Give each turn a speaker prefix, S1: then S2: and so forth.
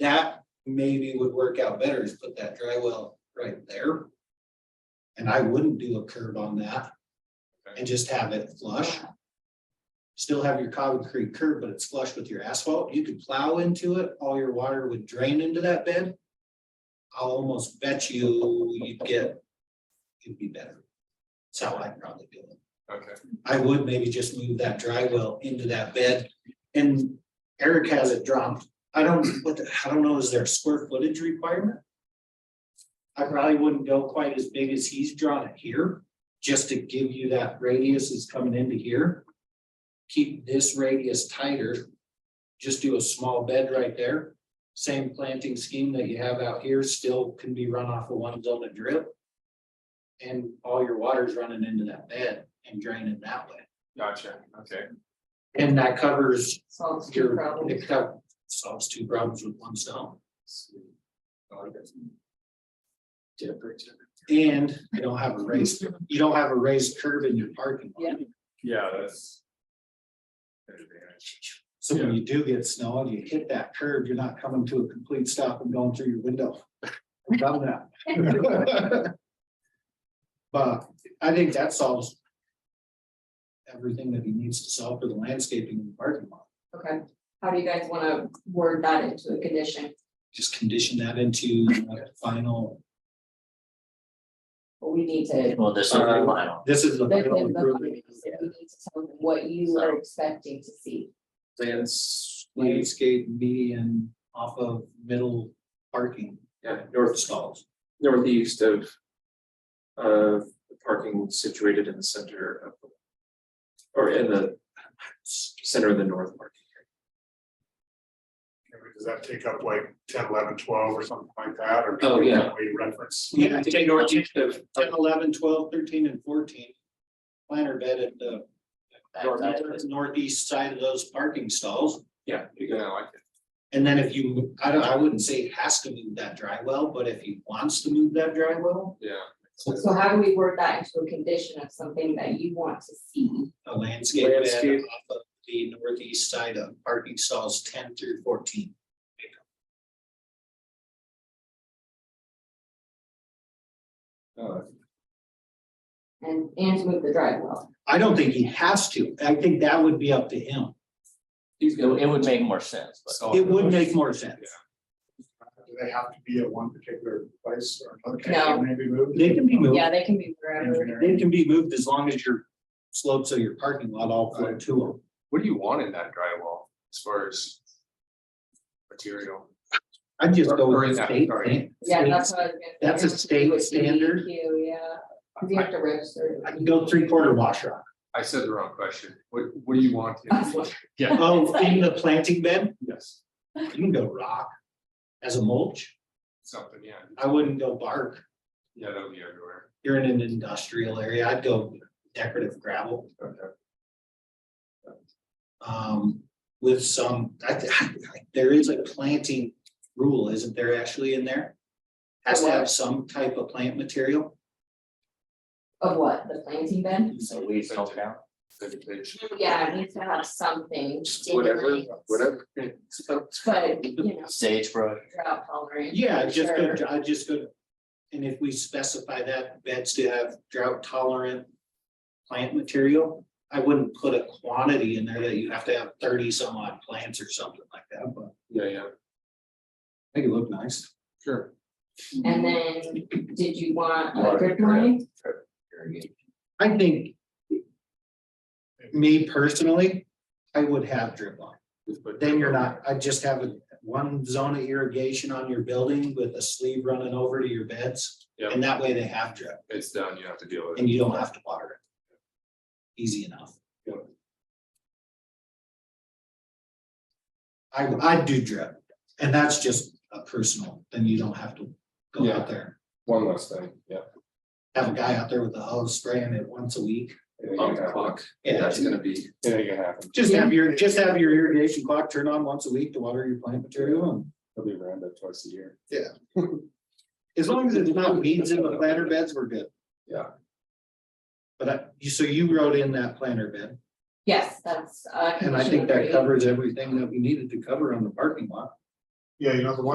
S1: that maybe would work out better is put that dry well right there. And I wouldn't do a curb on that. And just have it flush. Still have your concrete curb, but it's flush with your asphalt. You could plow into it, all your water would drain into that bed. I'll almost bet you you'd get, it'd be better. That's how I'd probably do it.
S2: Okay,
S1: I would maybe just move that dry well into that bed. And Eric has it dropped. I don't, what, the- I don't know, is there a square footage requirement? I probably wouldn't go quite as big as he's drawn it here, just to give you that radius is coming into here. Keep this radius tighter. Just do a small bed right there. Same planting scheme that you have out here still can be run off of one zone of drip. And all your water's running into that bed and draining that way.
S2: gotcha, okay,
S1: And that covers
S3: Solves two
S1: your,
S3: problems.
S1: it co- solves two problems with one stone. And you don't have a raised, you don't have a raised curb in your parking lot.
S2: yeah, that's. an advantage.
S1: So when you do get snow and you hit that curb, you're not coming to a complete stop and going through your window. I've Done that. But I think that solves everything that he needs to solve for the landscaping in the parking lot.
S3: Okay, how do you guys wanna word that into a condition?
S1: Just condition that into the final,
S3: But we need to.
S4: Well, this is the
S1: Uh,
S4: final,
S1: this is the
S3: That's
S1: final
S3: in the
S1: improvement.
S3: findings, that we need to tell them What you are expecting to see.
S1: Plants, landscape median off of middle parking,
S5: Yeah,
S1: north stalls.
S5: northeast of. Of the parking situated in the center of. the- Or in the center of the north parking.
S6: Does that take up like 10, 11, 12, or something like that, or?
S5: Oh, yeah.
S6: We reference,
S1: Yeah, I
S5: Take
S1: think
S5: northeast of.
S1: 10, 11, 12, 13, and fourteen. Planter bed at the north- uh, northeast side of those parking stalls.
S5: Yeah,
S2: You can, I like it,
S1: And then if you, I don't, I wouldn't say has to move that dry well, but if he wants to move that dry well,
S2: yeah.
S3: So how do we word that into a condition of something that you want to see?
S1: a landscape bed
S5: Landscape.
S1: off of the northeast side of parking stalls ten through fourteen.
S2: Oh,
S3: And, and to move the dry well.
S1: I don't think he has to. I think that would be up to him.
S4: It it would make more sense, but.
S2: so-
S1: It would make more sense.
S6: do they have to be at one particular place or another? Can
S3: No.
S6: they Maybe moved?
S1: They can be moved.
S3: Yeah, they can be wherever.
S1: They can be moved as long as your slopes of your parking lot all flow to them.
S2: What do you want in that drywall as far as? Material,
S1: I'd just go
S2: Or
S1: with
S2: is
S1: the
S2: that-
S1: state.
S2: sorry.
S1: thing.
S3: Yeah, that's what I was gonna say.
S1: That's a state
S3: With
S1: standard.
S3: DEQ, Yeah, 'Cause you have to register.
S1: I can go three quarter wash rock.
S2: I said the wrong question, what, what do you want? in-
S3: That's what-
S2: Yeah,
S1: Oh, in the planting bed,
S2: yes,
S1: you can go rock as a mulch.
S2: something, yeah,
S1: I wouldn't go bark.
S2: yeah, that'll be everywhere,
S1: You're in an industrial area. I'd go decorative gravel.
S2: okay,
S1: um, with some, I, th- I- there is a planting rule, isn't there actually in there? Has to have some type of plant material,
S3: Of what, the planting bed?
S4: So we still count.
S2: vegetation.
S3: Yeah, it needs to have something.
S5: Whatever,
S3: stimulating.
S5: whatever.
S3: But, you know,
S4: Sagebrush,
S3: drought tolerant.
S1: yeah,
S3: for
S1: just
S3: sure.
S1: go, I just go. And if we specify that beds to have drought tolerant plant material, I wouldn't put a quantity in there that you have to have thirty some odd plants or something like that, but.
S2: Yeah, yeah,
S1: Make it look nice.
S2: sure,
S3: And then, did you want a
S4: Water
S3: drip
S4: drip.
S3: line?
S1: I think. Me personally, I would have drip line.
S2: just put-
S1: Then you're not, I just have a- one zone of irrigation on your building with a sleeve running over to your beds.
S2: Yeah.
S1: And that way they have drip
S2: It's done, you have to deal with it.
S1: and you don't have to water it. Easy enough.
S2: Yeah.
S1: I, I do drip and that's just a personal, then you don't have to go
S2: Yeah.
S1: out there.
S2: One last thing, yeah.
S1: Have a guy out there with a hose spraying it once a week.
S2: It ain't gonna happen.
S1: Yeah,
S2: That's gonna be, it ain't gonna happen,
S1: Just have your, just have your irrigation clock turn on once a week to water your plant material and
S2: it'll be around that twice a year.
S1: as long as it's not weeds in the planter beds, we're good.
S2: Yeah.
S1: But I, you, so you wrote in that planter bed
S3: Yes, that's. uh,
S1: and I
S3: condition
S1: think that
S3: three.
S1: covers everything that we needed to cover on the parking lot.
S6: Yeah, you know, the one